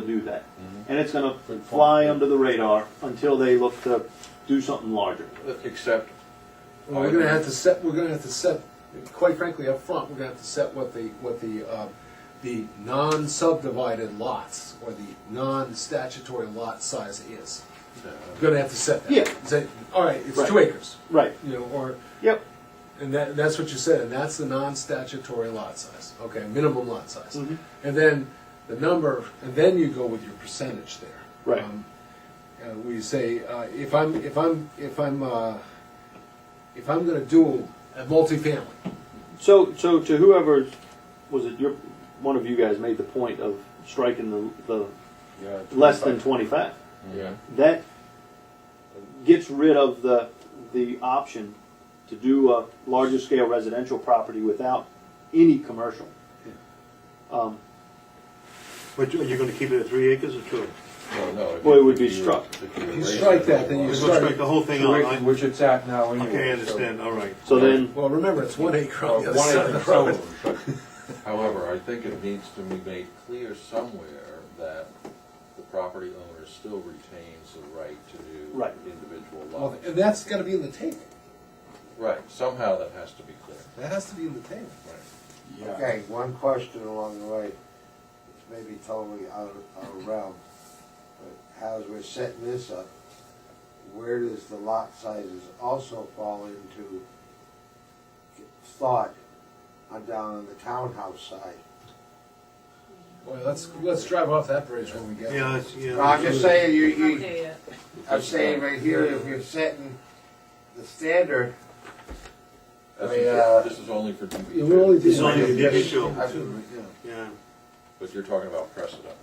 to do that. And Mm-hmm. it's gonna fly under the radar until they look to do something larger. Except, Well, we're gonna have to set, we're gonna have to set, quite frankly, up front, we're gonna have to set what the, what the, uh, the non-subdivided lots, or the non-statutory lot size is. uh, We're gonna have to set that. Yeah. Say, all right, it's two Right. acres, Right, you know, or, yep, and that, that's what you said, and that's the non-statutory lot size, okay, minimum lot size. Mhm. And then the number, and then you go with your percentage there. Right. Um, uh, we say, uh, if I'm, if I'm, if I'm, uh, if I'm gonna do a multifamily, so, so to whoever, was it your, one of you guys made the point of striking the, yeah. the less than twenty-five. Yeah. That gets rid of the, the option to do a larger scale residential property without any commercial. Um, But you- are you gonna keep it at three acres or two? No, no. if Well, it you- would be if you- struck. if you You raise strike it, that, then you well, Let's strike- strike the whole thing out. I- Which it's at now anyway. Okay, I so- understand, all right. So then, well, remember, it's one acre Uh, on the other One side of acre the solar. road. However, I think it needs to be made clear somewhere that the property owner still retains the right to do Right. individual Well, lots. And that's gotta be in the table, Right, somehow that has to be clear. that has to be in the table. Yeah. Okay, one question along the way, which may be totally out of, out of realm, but as we're setting this up, where does the lot sizes also fall into thought on down on the townhouse side? Boy, let's, let's drive off that bridge when we get there. Yeah, it's, Well, I'm yeah. just saying, you, Not you, there yet. I'm saying right here, if you're setting the standard, I This mean, is- uh, This is only for DB Yeah, we're only two, It's doing- only a big issue, to yeah. but you're talking about precedent.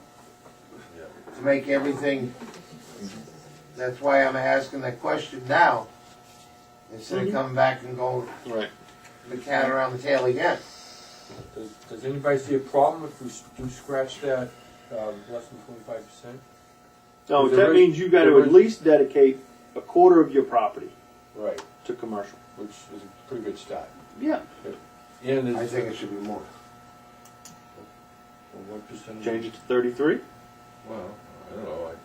Yeah. make everything, that's why I'm asking that question now, instead of Mm-hmm. coming back and going right, the cat around the tail again. Does, does anybody see a problem if we s- do scratch that, um, less than twenty-five percent? no, There that is- means you gotta there at is- least dedicate a quarter of your property Right, to commercial. which is a pretty good start. Yeah. And I there's think it should be more. what percentage? Change it to thirty-three? Well, I don't know, I,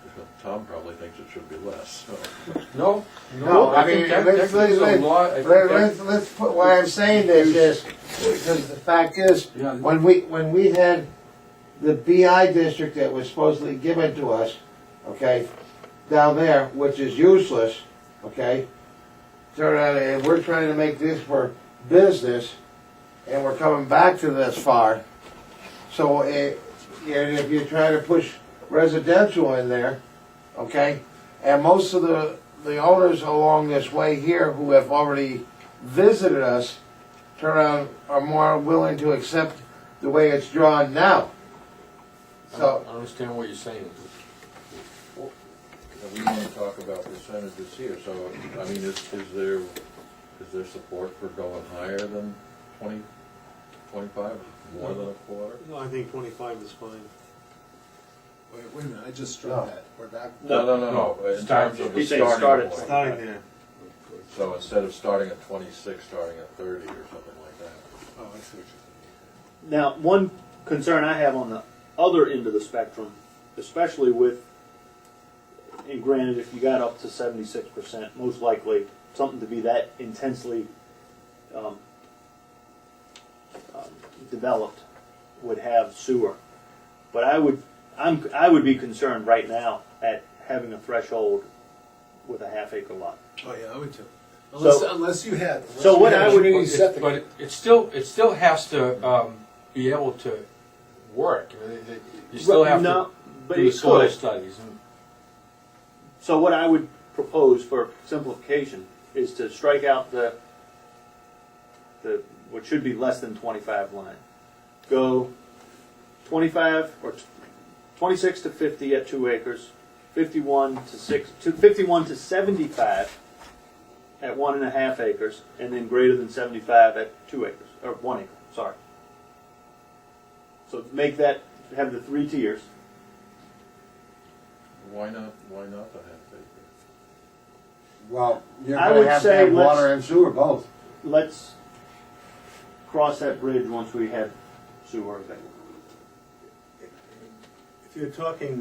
Tom probably thinks it should be less, so. No, No, no, I I mean, think that, that let's, gives let's, a lot, I let's, think let's, that, let's put, why I'm saying this is, because the fact is, Yeah. when we, when we had the BI district that was supposedly given to us, okay, down there, which is useless, okay? Turn around, and we're trying to make this for business, and we're coming back to this far. So, eh, and if you try to push residential in there, okay? And most of the, the owners along this way here who have already visited us turn around, are more willing to accept the way it's drawn now. I So, don't- I understand what you're saying. Now, we want to talk about percentages here, so, I mean, is, is there, is there support for going higher than twenty, twenty-five, more than a quarter? No, I think twenty-five is fine. Wait, wait a minute, I just struck No. that, we're back. Oh, No, no, no, no, in Start- terms of the he's saying start starting at- point. Starting there. So instead of starting at twenty-six, starting at thirty or something like that. Oh, I see what you're Now, one concern I have on the other end of the spectrum, especially with, and granted, if you got up to seventy-six percent, most likely something to be that intensely um, um, developed would have sewer. But I would, I'm, I would be concerned right now at having a threshold with a half acre lot. Oh, yeah, I would too. Unless, So- unless you had. So what I would- But it's- But it- it still, it still has to, um, be able to work, I mean, it- you still have No, to but do the it soil could. studies and. So what I would propose for simplification is to strike out the, the, what should be less than twenty-five line. Go twenty-five or t- twenty-six to fifty at two acres, fifty-one to six, to fifty-one to seventy-five at one and a half acres, and then greater than seventy-five at two acres, or one acre, sorry. So make that, have the three tiers. Why not, why not the half acre? well, you're I gonna would have to say have let's- water and sewer both. let's cross that bridge once we have sewer available. If you're talking